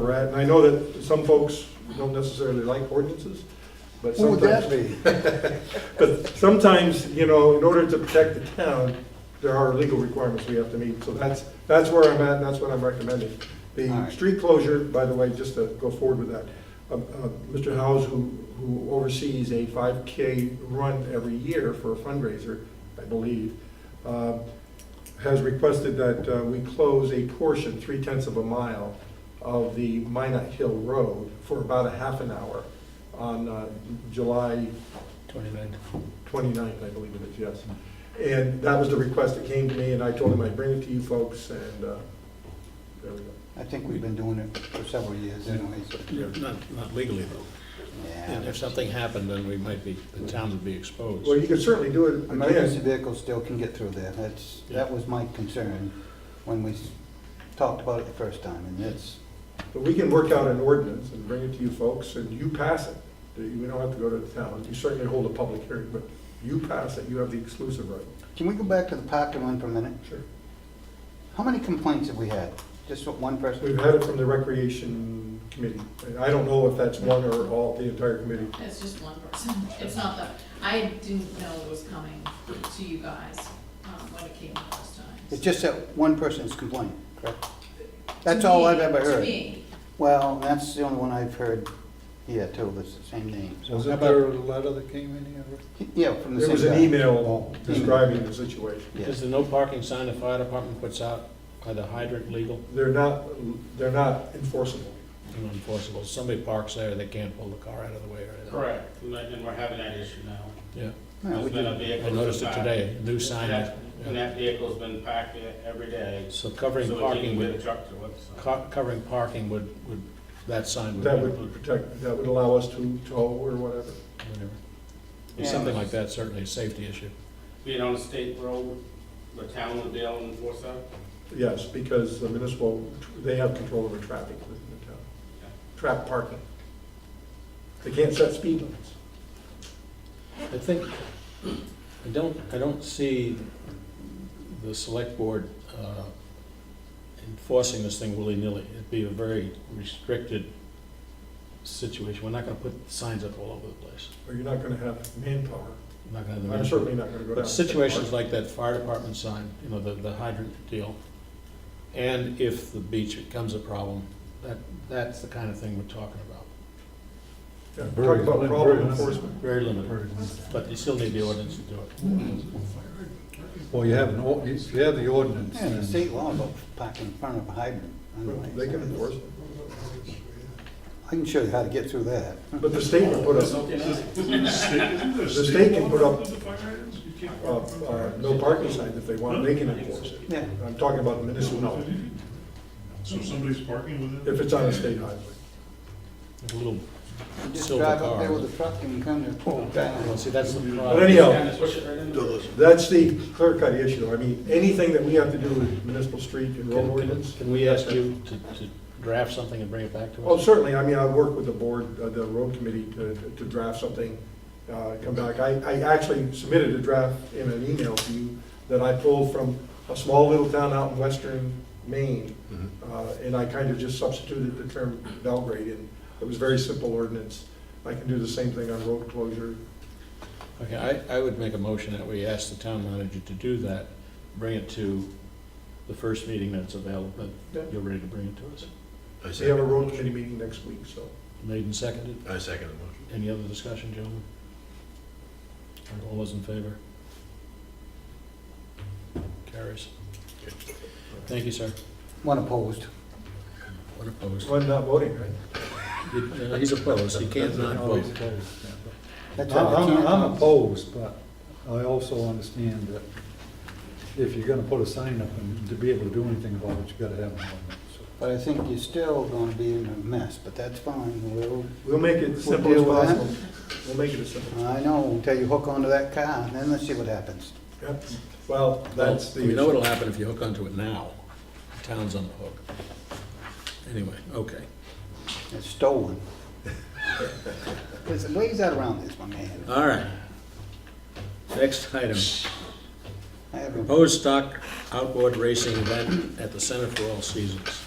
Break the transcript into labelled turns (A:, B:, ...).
A: we're at, and I know that some folks don't necessarily like ordinances, but
B: What would that
A: sometimes,
B: be?
A: but sometimes, you know, in order to protect the town, there are legal requirements we have to meet, so that's, that's where I'm at, and that's what I'm recommending.
B: All
A: The
B: right.
A: street closure, by the way, just to go forward with that, uh, uh, Mr. Howes, who, who oversees a five K run every year for a fundraiser, I believe, uh, has requested that uh, we close a portion, three tenths of a mile, of the Minot Hill Road for about a half an hour on uh, July
C: 29th.
A: 29th, I believe it is, yes. And that was the request that came to me, and I told him I'd bring it to you folks, and uh, there we go.
B: I think we've been doing it for several years anyways.
C: Not, not legally though. And
B: Yeah.
C: if something happened, then we might be, the town would be exposed.
A: Well, you can certainly do it
B: Emergency
A: again.
B: vehicles still can get through there. That's, that was my concern when we s- talked about it the first time, and that's,
A: But we can work out an ordinance and bring it to you folks, and you pass it. We don't have to go to the town. You certainly hold a public hearing, but you pass it. You have the exclusive right.
B: can we go back to the parking one for a minute?
A: Sure.
B: How many complaints have we had? Just what one person?
A: We've had it from the Recreation Committee. and I don't know if that's one or all, the entire committee.
D: It's just one person, it's not the, I didn't know it was coming to you guys, um, when it came the first time.
B: It's just that one person's complaint, correct? That's all I've ever
D: To
B: heard.
D: me,
B: Well, that's the only one I've heard here too, that's the same name. so-
E: Was that there a letter that came in here?
B: Yeah, from the
A: There
B: same guy.
A: was an email describing the situation.
B: Yeah.
C: Is the no parking sign the fire department puts out, by the hydrant legal
A: They're not, they're not enforceable.
C: and enforceable? Somebody parks there, they can't pull the car out of the way or anything.
F: Correct, and that- and we're having that issue now.
C: Yeah,
B: No, we
F: There's been a
B: didn't.
F: vehicle
C: I noticed it
F: parked-
C: today, new sign.
F: that- And
C: yeah.
F: that vehicle's been packed there every day.
C: So
F: So
C: covering
F: we
C: parking
F: can get a
C: would,
F: truck to it, so.
C: co- covering parking would, would, that sign would.
A: That would protect, that would allow us to tow or whatever.
C: whatever.
F: Yeah.
C: Something like that, certainly a safety issue.
F: Being on a state road, the town would be able to enforce that.
A: Yes, because the municipal, they have control over traffic within the town. Trap parking. They can't set speed limits.
C: I think, I don't, I don't see the select board uh, enforcing this thing willy-nilly. It'd be a very restricted situation. We're not gonna put signs up all over the place.
A: Or you're not gonna have manpower.
C: We're Not gonna
A: I'm
C: have the.
A: certainly not gonna go down.
C: But situations like that fire department sign, you know, the, the hydrant deal, and if the beach becomes a problem, that, that's the kind of thing we're talking about.
A: Yeah, Talk about problem enforcement.
C: Very limited, but you still need the ordinance to do it.
E: Well, you have an, ord- you you have the ordinance.
B: Yeah, the
E: and-
B: state law about parking in front of a hydrant. I don't like
A: They can
B: that.
A: enforce it.
B: I can show you how to get through that.
A: But the state would put uh, up,
G: The
A: the state can put up, uh, uh,
G: up,
A: no parking signs if they want, they can enforce it.
B: Yeah.
A: I'm talking about municipal,
G: So if somebody's parking within.
A: if it's on a state highway.
C: A little
B: You Just
C: Silver
B: drive up
C: car,
B: there with
C: huh?
B: a truck and come to pull
C: Well,
B: down.
C: see, that's the
A: But
C: problem.
A: anyhow,
F: Kinda push it right in.
A: That's the clear cut issue. I mean, anything that we have to do with municipal street and road
C: Can- Can
A: ordinance.
C: can we ask you to, to draft something and bring it back to us?
A: Oh, certainly. I mean, I work with the board, uh, the road committee to, to draft something, uh, come back. I, I actually submitted a draft in an email to you that I pulled from a small little town out in western Maine.
C: Mm-hmm.
A: Uh, and I kind of just substituted the term Belgrade and it was very simple ordinance. I can do the same thing on road closure.
C: Okay, I, I would make a motion that we ask the town manager to do that, bring it to the first meeting that's available,
A: Yeah.
C: that you're ready to bring it to us.
H: I
A: We have a
H: second,
A: road committee meeting next week, so.
C: Made and seconded.
H: I second the motion.
C: Any other discussion, gentlemen? Are All those in favor? Carries. Thank you, sir.
B: One opposed.
C: What opposed?
A: Well, not voting, right?
C: You- uh, He's opposed, he can't not
E: Always
C: vote.
E: opposed, yeah.
B: That's right, I
E: I'm,
B: can't-
E: I'm opposed, but I also understand that if you're gonna put a sign up and to be able to do anything about it, you gotta have an ordinance.
B: But I think you're still gonna be in a mess, but that's fine. We'll,
A: We'll make it as
B: We'll
A: simple as
B: deal with that.
A: possible. We'll make it as simple.
B: I know, until you hook onto that car, and then let's see what happens.
A: Yep. Well, that's the.
C: We know
A: issue.
C: what'll happen if you hook onto it now. The Town's on the hook. Anyway, okay.
B: It's stolen. There's ways out around this, my man.
C: All right. Next item,
B: I haven't
C: proposed stock outboard racing event at the Center for All Seasons.